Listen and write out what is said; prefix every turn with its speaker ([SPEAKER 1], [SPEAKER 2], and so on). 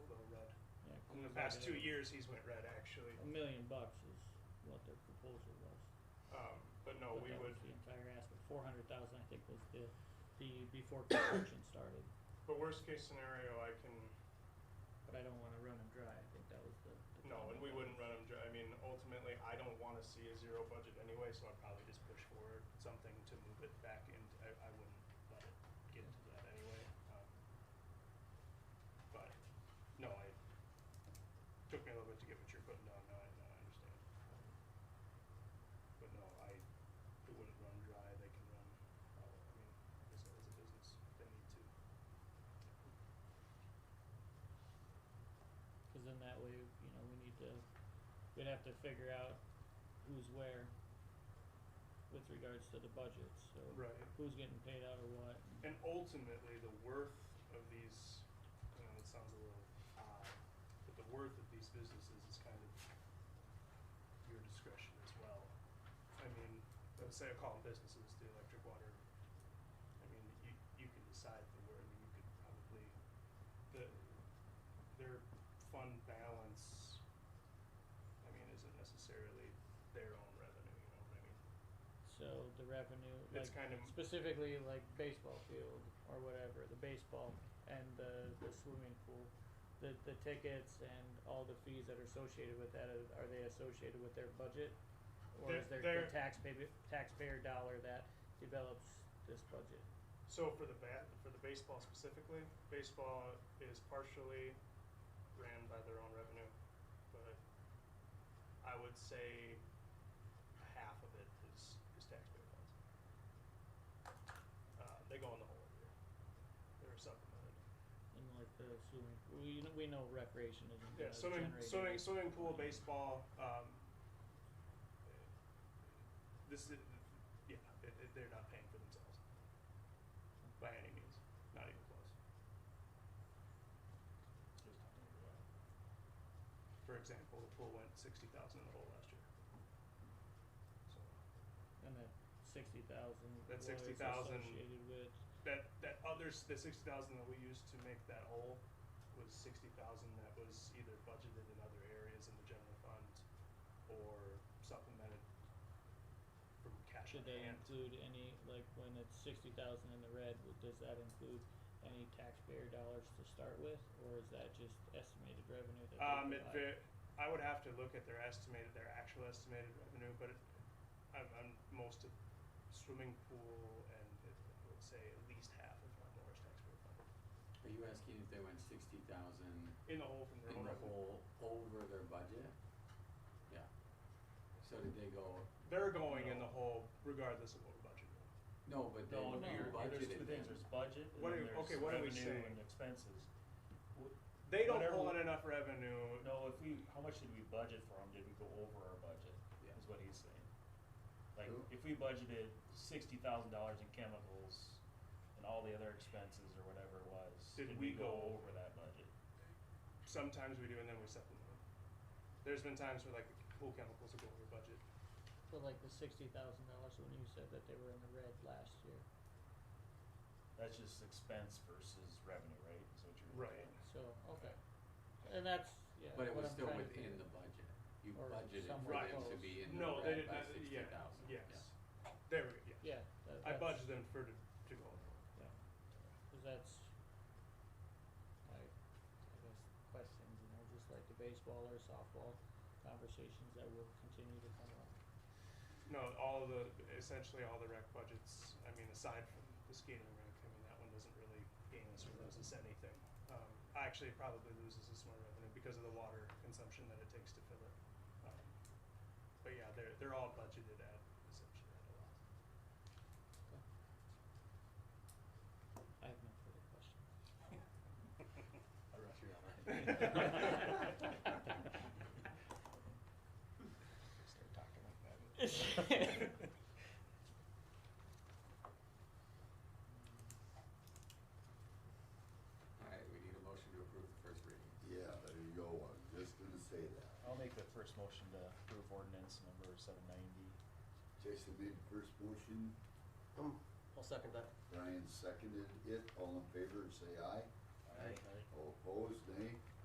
[SPEAKER 1] the past two years, he's went red actually.
[SPEAKER 2] A million bucks is what their proposal was.
[SPEAKER 1] Um, but no,
[SPEAKER 2] But
[SPEAKER 1] we
[SPEAKER 2] that
[SPEAKER 1] would,
[SPEAKER 2] was The entire ask, but four hundred thousand, I think, was the, the, before construction started,
[SPEAKER 1] but worst case scenario, I can,
[SPEAKER 2] but I don't wanna run them dry, I think that was the. the
[SPEAKER 1] no, and
[SPEAKER 2] comment.
[SPEAKER 1] we wouldn't run him, dr- I mean, ultimately, I don't wanna see a zero budget anyway, so I'd probably just push forward something to move it back in, I, I wouldn't let it get to that anyway. Um, But, no, I, took me a little bit to get what you're putting down, no, I, no, I understand. Um, But no, I, it wouldn't run dry, they can run, uh, I mean, I guess as a business, they need to.
[SPEAKER 2] Cause then that way, you know, we need to, we'd have to figure out who's where with regards to the budgets, so
[SPEAKER 1] Right.
[SPEAKER 2] who's getting paid out or what. and-
[SPEAKER 1] And ultimately, the worth of these, you know, it sounds a little odd, but the worth of these businesses is kind of your discretion as well. I mean, let's say I call them businesses, the electric water, I mean, you, you can decide the word, I mean, you could probably, the, their fund balance, I mean, isn't necessarily their own revenue, you know what I mean?
[SPEAKER 2] So the revenue, like
[SPEAKER 1] It's kind of,
[SPEAKER 2] specifically like baseball field or whatever, the baseball and the, the swimming pool, the, the tickets and all the fees that are associated with that, uh, are- are they associated with their budget? Or is
[SPEAKER 1] They're-
[SPEAKER 2] there
[SPEAKER 1] they're-
[SPEAKER 2] the taxpayer, taxpayer dollar that develops this budget?
[SPEAKER 1] So for the bat, for the baseball specifically, baseball is partially ran by their own revenue, but I would say half of it is, is taxpayer funds. Uh, they go in the hole every year. They're supplemented.
[SPEAKER 2] And like the swimming, we, kn- we know recreation isn't
[SPEAKER 1] Yeah,
[SPEAKER 2] gonna
[SPEAKER 1] swimming,
[SPEAKER 2] generate
[SPEAKER 1] swimming,
[SPEAKER 2] any-
[SPEAKER 1] swimming pool, baseball. Um, this is, yeah, it, it, they're not paying for themselves by any means, not even close. For example, the pool went sixty thousand in the hole last year. So
[SPEAKER 2] And that sixty thousand
[SPEAKER 1] That
[SPEAKER 2] was
[SPEAKER 1] 60,000
[SPEAKER 2] associated with,
[SPEAKER 1] that that others the sixty thousand that we used to make that hole was sixty thousand that was either budgeted in other areas in the general fund or supplemented from cash on
[SPEAKER 2] Should they
[SPEAKER 1] hand.
[SPEAKER 2] include any, like, when it's sixty thousand in the red, would- does that include any taxpayer dollars to start with, or is that just estimated revenue that they
[SPEAKER 1] Um, it
[SPEAKER 2] provide?
[SPEAKER 1] va- I would have to look at their estimated, their actual estimated revenue, but it, I'm, I'm most of swimming pool and it, I would say at least half, if not more, is taxpayer funded.
[SPEAKER 3] Are you asking if they went sixty thousand
[SPEAKER 1] In the hole from their
[SPEAKER 3] in
[SPEAKER 1] own
[SPEAKER 3] the
[SPEAKER 1] revenue.
[SPEAKER 3] hole over their budget? Yeah. So did they go,
[SPEAKER 1] They're going in the hole regardless of what we budgeted.
[SPEAKER 3] no, but they
[SPEAKER 4] No,
[SPEAKER 3] were
[SPEAKER 4] no, there's
[SPEAKER 3] budgeted
[SPEAKER 4] two
[SPEAKER 3] then.
[SPEAKER 4] things, there's budget and
[SPEAKER 1] What
[SPEAKER 4] then
[SPEAKER 1] are-
[SPEAKER 4] there's
[SPEAKER 1] okay, what are we
[SPEAKER 4] revenue
[SPEAKER 1] saying?
[SPEAKER 4] and expenses.
[SPEAKER 1] They don't
[SPEAKER 4] Whatever
[SPEAKER 1] pull in
[SPEAKER 4] we-
[SPEAKER 1] enough revenue
[SPEAKER 4] No, if we, how much did we budget for them, did we go over our budget,
[SPEAKER 3] Yeah.
[SPEAKER 4] is what he's saying. Like,
[SPEAKER 3] Who?
[SPEAKER 4] if we budgeted sixty thousand dollars in chemicals and all the other expenses or whatever it was,
[SPEAKER 1] Did
[SPEAKER 4] did
[SPEAKER 1] we
[SPEAKER 4] we go
[SPEAKER 1] go-
[SPEAKER 4] over that budget?
[SPEAKER 1] Sometimes we do, and then we supplement them. There's been times where like the pool chemicals will go over budget.
[SPEAKER 2] But like the sixty thousand dollars, when you said that they were in the red last year,
[SPEAKER 4] That's just expense versus revenue, right, is what you're.
[SPEAKER 1] Right.
[SPEAKER 2] so, okay, and that's, yeah,
[SPEAKER 3] But it
[SPEAKER 2] what I'm
[SPEAKER 3] was still
[SPEAKER 2] trying to
[SPEAKER 3] within
[SPEAKER 2] figure-
[SPEAKER 3] the budget. You
[SPEAKER 2] Or
[SPEAKER 3] budgeted for
[SPEAKER 2] somewhere
[SPEAKER 3] them to
[SPEAKER 2] close.
[SPEAKER 3] be in the
[SPEAKER 1] No, they
[SPEAKER 3] red
[SPEAKER 1] didn't.
[SPEAKER 3] by
[SPEAKER 1] uh,
[SPEAKER 3] sixty
[SPEAKER 1] yeah,
[SPEAKER 3] thousand.
[SPEAKER 1] yes. There we go. Yeah.
[SPEAKER 2] Yeah, that,
[SPEAKER 1] I
[SPEAKER 2] that's,
[SPEAKER 1] budgeted them for to, to go over.
[SPEAKER 2] cause that's, I, I guess, questions, you know, just like the baseball or softball conversations that will continue to come up.
[SPEAKER 1] No, all of the essentially all the rec budgets. I mean, aside from the skating rink, I mean that one doesn't really gain us or lose us anything. Um, actually, it probably loses us more revenue because of the water consumption that it takes to fill it. Um, but yeah, they're they're all budgeted at essentially at a loss.
[SPEAKER 2] I have no further questions.
[SPEAKER 3] I rush you out.
[SPEAKER 1] Start talking like that.
[SPEAKER 3] Alright, we need a motion to approve the first reading.
[SPEAKER 5] Yeah, there you go, I was just gonna say that.
[SPEAKER 4] I'll make the first motion to approve ordinance number seven ninety.
[SPEAKER 5] Jason made the first motion,
[SPEAKER 6] I'll second that.
[SPEAKER 5] Brian seconded it, all in favor, say aye.
[SPEAKER 4] Aye.
[SPEAKER 5] All opposed, nay.